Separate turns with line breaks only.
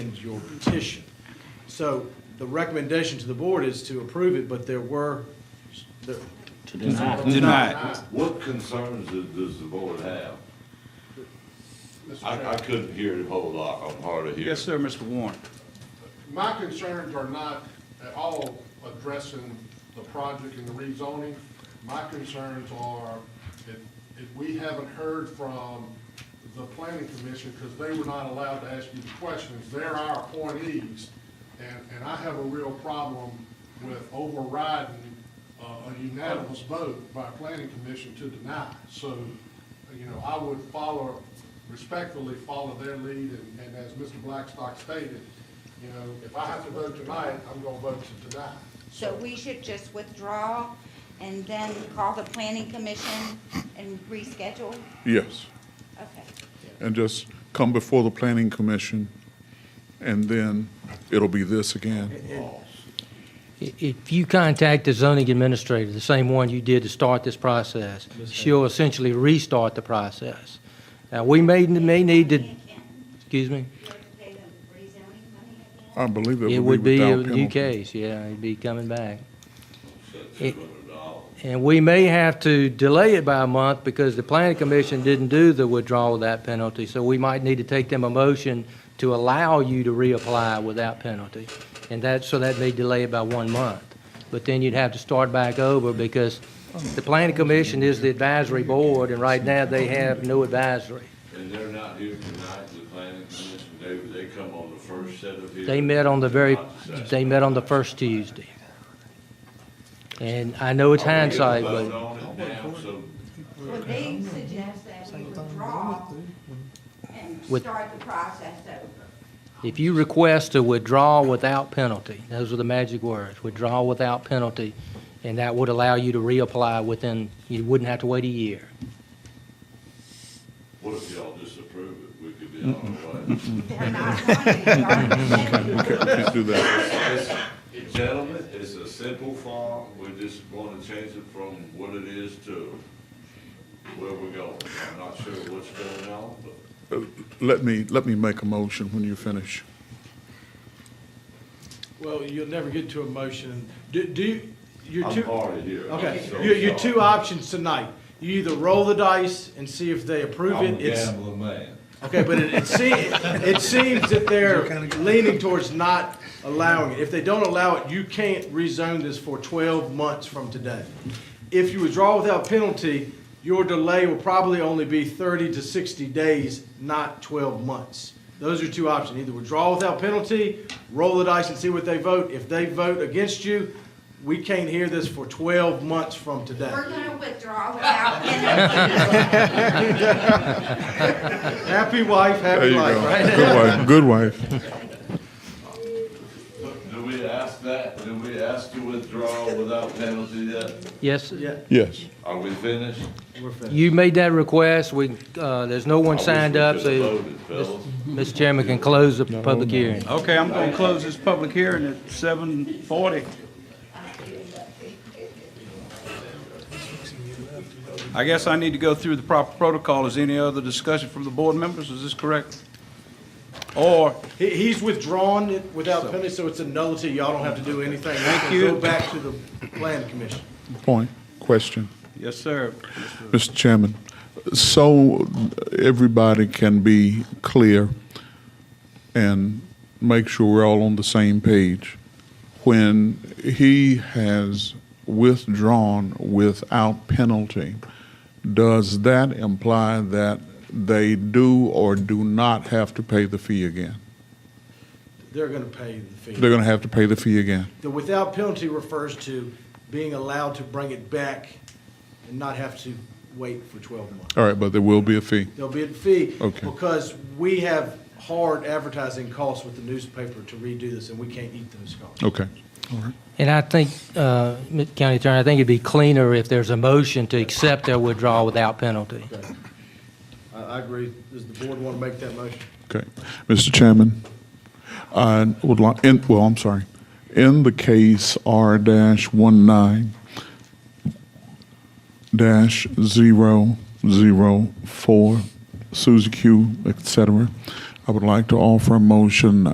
amend your petition. So the recommendation to the board is to approve it, but there were, there-
to deny it.
Denied.
What concerns does, does the board have? I, I couldn't hear the whole lot, I'm hard of hearing.
Yes, sir, Mr. Warren.
My concerns are not at all addressing the project and the rezoning. My concerns are if, if we haven't heard from the planning commission, because they were not allowed to ask you the questions, they're our appointees. And, and I have a real problem with overriding uh, a unanimous vote by a planning commission to deny. So, you know, I would follow, respectfully follow their lead, and, and as Mr. Blackstock stated, you know, if I have to vote tonight, I'm gonna vote to deny.
So we should just withdraw and then call the planning commission and reschedule?
Yes,
Okay.
and just come before the planning commission, and then it'll be this again.
I- If you contact the zoning administrator, the same one you did to start this process, she'll essentially restart the process. Now, we may, may need to, excuse me,
I believe
it
it
would be a
without
new
penalty.
case, yeah, it'd be coming back.
Six hundred dollars.
And we may have to delay it by a month because the planning commission didn't do the withdrawal of that penalty. So we might need to take them a motion to allow you to reapply without penalty. And that, so that may delay it by one month. But then you'd have to start back over because the planning commission is the advisory board and right now they have no advisory.
And they're not here tonight, the planning commission, they, they come on the first set of hearings.
They met on the very,
not the second.
they met on the first Tuesday. And I know it's
Are we gonna
hindsight,
vote
but
on it now, so
Well, they suggest that we withdraw and
With-
start the process over.
If you request to withdraw without penalty, those are the magic words, withdraw without penalty, and that would allow you to reapply within, you wouldn't have to wait a year.
what if y'all disapprove it, we could be on our way.
They're not going to start.
Can't do that.
It's- Gentlemen, it's a simple form, we're just gonna change it from what it is to where we're going. I'm not sure what's going on, but
Uh, Let me, let me make a motion when you finish.
well, you'll never get to a motion. Do, do, you- you're
I'm
two.
hard to hear.
Okay,
I'm so
your, your
sorry.
two options tonight. You either roll the dice and see if they approve
I'm a
it. It's,
gambling man.
okay, but it, it seems, it seems that they're leaning towards not allowing it. If they don't allow it, you can't rezone this for twelve months from today. If you withdraw without penalty, your delay will probably only be thirty to sixty days, not twelve months. Those are two options. Either withdraw without penalty, roll the dice and see what they vote. If they vote against you, we can't hear this for twelve months from today.
We're going to withdraw without penalty.
Happy wife,
There
happy
you
life,
go.
right?
Good wife, good wife.
Do- Do we ask that, do we ask to withdraw without penalty yet?
Yes,
Yeah,
Yes.
Are we finished?
we're finished.
you made that request, we, uh, there's no
I
one
wish
signed
we
up,
could've
so
voted, fellas.
Mr. Chairman can close the public hearing.
Okay, I'm going to close this public hearing at 7:40. I guess I need to go through the proper protocol. Is any other discussion from the board members? Is this correct? Or,
He, he's withdrawn it without penalty, so it's a nullity. Y'all don't have to do anything. Thank
you.
Go back to the plan commission.
Point, question.
yes, sir.
Mr. Chairman, so everybody can be clear and make sure we're all on the same page. When he has withdrawn without penalty, does that imply that they do or do not have to pay the fee again?
They're gonna pay the fee.
They're going to have to pay the fee again?
The without penalty refers to being allowed to bring it back and not have to wait for twelve months.
All right, but there will be a fee.
There'll be a fee.
Okay.
Because we have hard advertising costs with the newspaper to redo this, and we can't eat those costs.
Okay. All right.
And I think, uh, Mr. County Attorney, I think it'd be cleaner if there's a motion to accept their withdrawal without penalty.
Okay. I, I agree. Does the board wanna make that motion?
Okay. Mr. Chairman, I would like, in, well, I'm sorry. In the case R dash one nine dash zero zero four, Suzy Q, et cetera, I would like to offer a motion